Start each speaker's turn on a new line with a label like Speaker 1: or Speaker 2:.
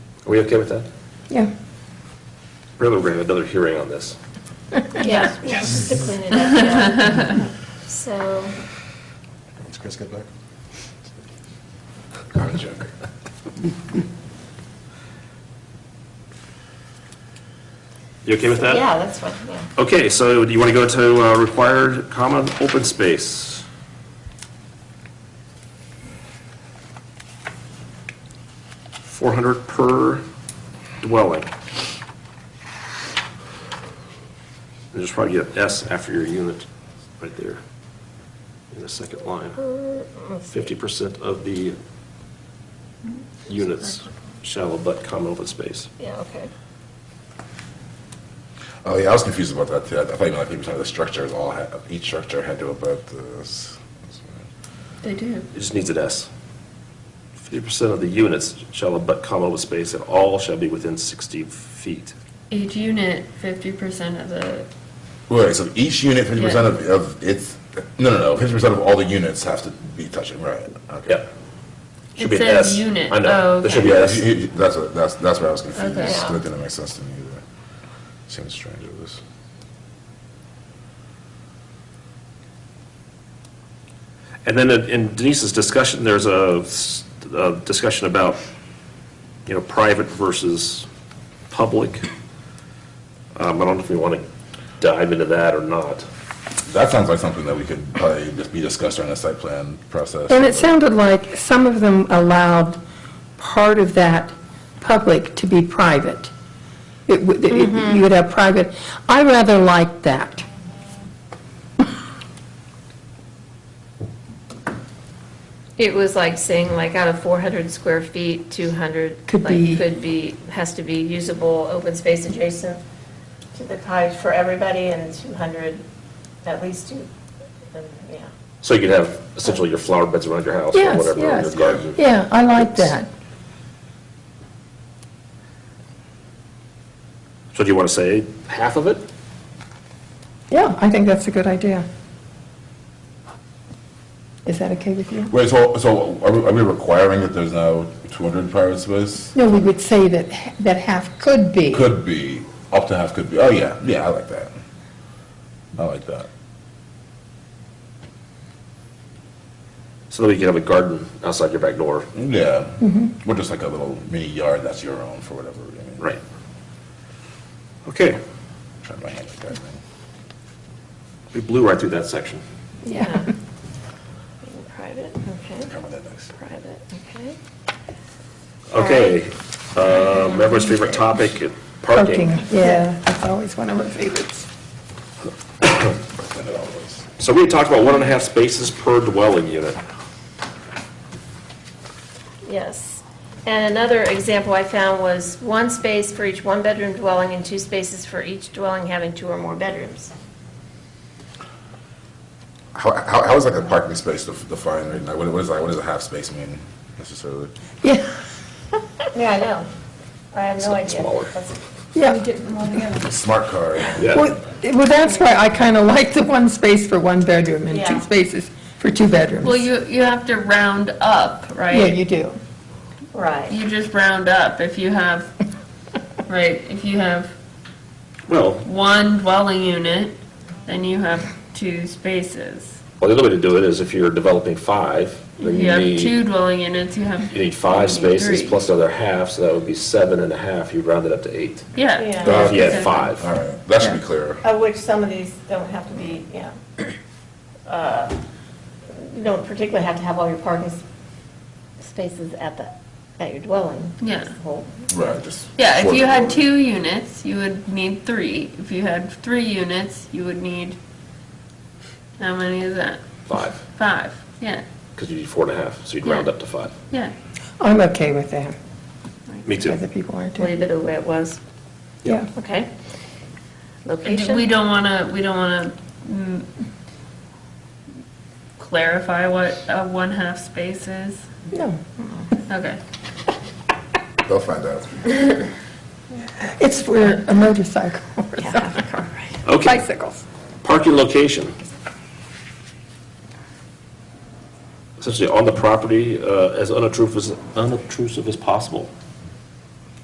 Speaker 1: Are we okay with that?
Speaker 2: Yeah.
Speaker 1: We're going to have another hearing on this.
Speaker 3: Yeah, just to clean it up, yeah. So,
Speaker 4: Once Chris gets back.
Speaker 1: I'm a joker. You okay with that?
Speaker 3: yeah, that's fine, yeah.
Speaker 1: Okay, so do you want to go to uh, required common open space? Four hundred per dwelling. And Just probably get an S after your unit, right there, in the second line. Fifty percent of the units shall abut common open space.
Speaker 3: Yeah, okay.
Speaker 5: Oh yeah, I was confused about that too. I I thought you meant like people said the structures all had, each structure had to abut this.
Speaker 2: They do.
Speaker 1: It just needs an S. Fifty percent of the units shall abut common open space, and all shall be within sixty feet.
Speaker 2: Each unit, fifty percent of the,
Speaker 5: Wait, so each unit fifty percent of, of its no no no fifty percent of all the units have to be touching right? Okay.
Speaker 1: Yeah. Should
Speaker 2: It
Speaker 1: be an
Speaker 2: says
Speaker 1: S.
Speaker 2: unit.
Speaker 1: I
Speaker 2: Oh,
Speaker 1: know, there should be
Speaker 5: Yeah,
Speaker 1: an S.
Speaker 5: that's, that's what that's that's where I was confused.
Speaker 2: Okay.
Speaker 5: That didn't make sense to me either. Seems strange. It was.
Speaker 1: And then in- in Denise's discussion, there's a, s- a discussion about, you know, private versus public. Um, I don't know if we want to dive into that or not.
Speaker 5: That sounds like something that we could probably just be discussed during the site plan process.
Speaker 6: And it sounded like some of them allowed part of that public to be private. It would- it- You would have private, I rather like that.
Speaker 3: It was like saying, like, out of 400 square feet, 200.
Speaker 6: Could
Speaker 3: like,
Speaker 6: be-
Speaker 3: Could be, has to be usable, open space adjacent to the cottage for everybody, and 200, at least two, um, yeah.
Speaker 1: So you could have essentially your flower beds around your house or
Speaker 6: Yes,
Speaker 1: whatever, or your
Speaker 6: yes.
Speaker 1: garden.
Speaker 6: Yeah, I like that.
Speaker 1: So do you want to say half of it?
Speaker 6: Yeah, I think that's a good idea. Is that okay with you?
Speaker 5: Wait, so so are we, are we requiring that there's now two hundred private space?
Speaker 6: No, we would say that, h- that half could be.
Speaker 5: Could be up to half. Could be. Oh yeah, yeah. I like that. I like that.
Speaker 1: So that we can have a garden outside your back door.
Speaker 5: Yeah. Or just like a little mini yard that's your own for whatever. I mean,
Speaker 1: Right. Okay,
Speaker 5: Trying to handle that thing.
Speaker 1: we blew right through that section.
Speaker 3: Yeah. Being Private, okay.
Speaker 5: Come with that next.
Speaker 3: Private, okay.
Speaker 1: Okay, um, everyone's favorite topic, parking.
Speaker 6: Yeah, that's always one of my favorites.
Speaker 5: Send it all to us.
Speaker 1: So we had talked about one and a half spaces per dwelling unit.
Speaker 3: Yes. And another example I found was one space for each one-bedroom dwelling and two spaces for each dwelling having two or more bedrooms.
Speaker 5: How, how, how is like a parking space def- defined right now? What, what is like, what does a half space mean necessarily?
Speaker 6: Yeah,
Speaker 3: Yeah, I know. I have no
Speaker 1: Something
Speaker 3: idea.
Speaker 1: smaller.
Speaker 3: That's-
Speaker 6: yeah.
Speaker 5: A smart car.
Speaker 1: Yeah,
Speaker 6: Well, well, that's why I kind of like the one space for one bedroom and
Speaker 3: Yeah.
Speaker 6: two spaces for two bedrooms.
Speaker 2: well, you, you have to round up, right?
Speaker 6: Yeah, you do.
Speaker 3: Right.
Speaker 2: You just round up if you have, right, if you have
Speaker 1: well,
Speaker 2: one dwelling unit, then you have two spaces.
Speaker 1: well, the other way to do it is if you're developing five, then
Speaker 2: If you
Speaker 1: you
Speaker 2: have two
Speaker 1: need,
Speaker 2: dwelling units, you have,
Speaker 1: you need five
Speaker 2: you need
Speaker 1: spaces
Speaker 2: three.
Speaker 1: plus another half, so that would be seven and a half, you'd round it up to eight.
Speaker 2: yeah.
Speaker 3: Yeah.
Speaker 1: If you had
Speaker 2: Okay.
Speaker 1: five.
Speaker 5: All right, that should be clear.
Speaker 3: Of which some of these don't have to be, yeah. Uh, You don't particularly have to have all your parking s- spaces at the, at your dwelling.
Speaker 2: Yeah.
Speaker 3: Just the whole-
Speaker 5: Right, just.
Speaker 2: Yeah, if
Speaker 5: sort
Speaker 2: you
Speaker 5: of-
Speaker 2: had two units, you would need three. If you had three units, you would need, how many is that?
Speaker 1: Five,
Speaker 2: Five, yeah,
Speaker 1: because you need four and a half, so you'd round
Speaker 2: Yeah.
Speaker 1: up to five.
Speaker 2: yeah.
Speaker 6: I'm okay with that.
Speaker 1: Me too.
Speaker 6: Other people aren't. too.
Speaker 3: Leave it the way it was.
Speaker 6: Yeah.
Speaker 3: Okay.
Speaker 2: And We
Speaker 3: Location.
Speaker 2: don't want to, we don't want to clarify what a one-half space is?
Speaker 6: No.
Speaker 2: Okay.
Speaker 5: They'll find out.
Speaker 6: It's for a motorcycle or
Speaker 3: Yeah,
Speaker 6: something.
Speaker 3: correct.
Speaker 1: Okay,
Speaker 6: Bicycles.
Speaker 1: parking location. Essentially on the property, uh, as unobtrusive as, unobtrusive as possible.